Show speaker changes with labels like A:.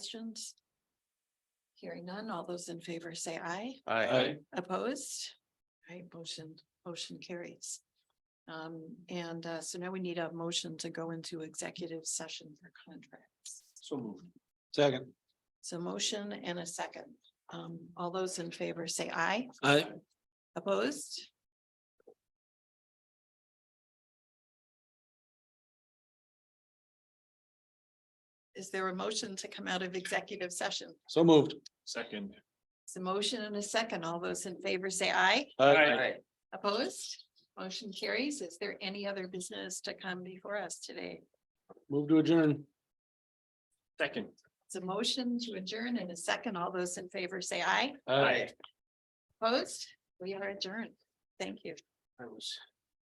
A: questions? Hearing none, all those in favor say aye.
B: Aye.
A: Opposed? Right, motion, motion carries. Um, and uh, so now we need a motion to go into executive session for contracts.
B: So moved. Second.
A: So motion and a second. Um, all those in favor say aye.
B: Aye.
A: Opposed? Is there a motion to come out of executive session?
B: So moved. Second.
A: It's a motion and a second. All those in favor say aye.
B: Aye.
A: Opposed? Motion carries. Is there any other business to come before us today?
B: Move to adjourn. Second.
A: It's a motion to adjourn in a second. All those in favor say aye.
B: Aye.
A: Opposed? We are adjourned. Thank you.
B: I was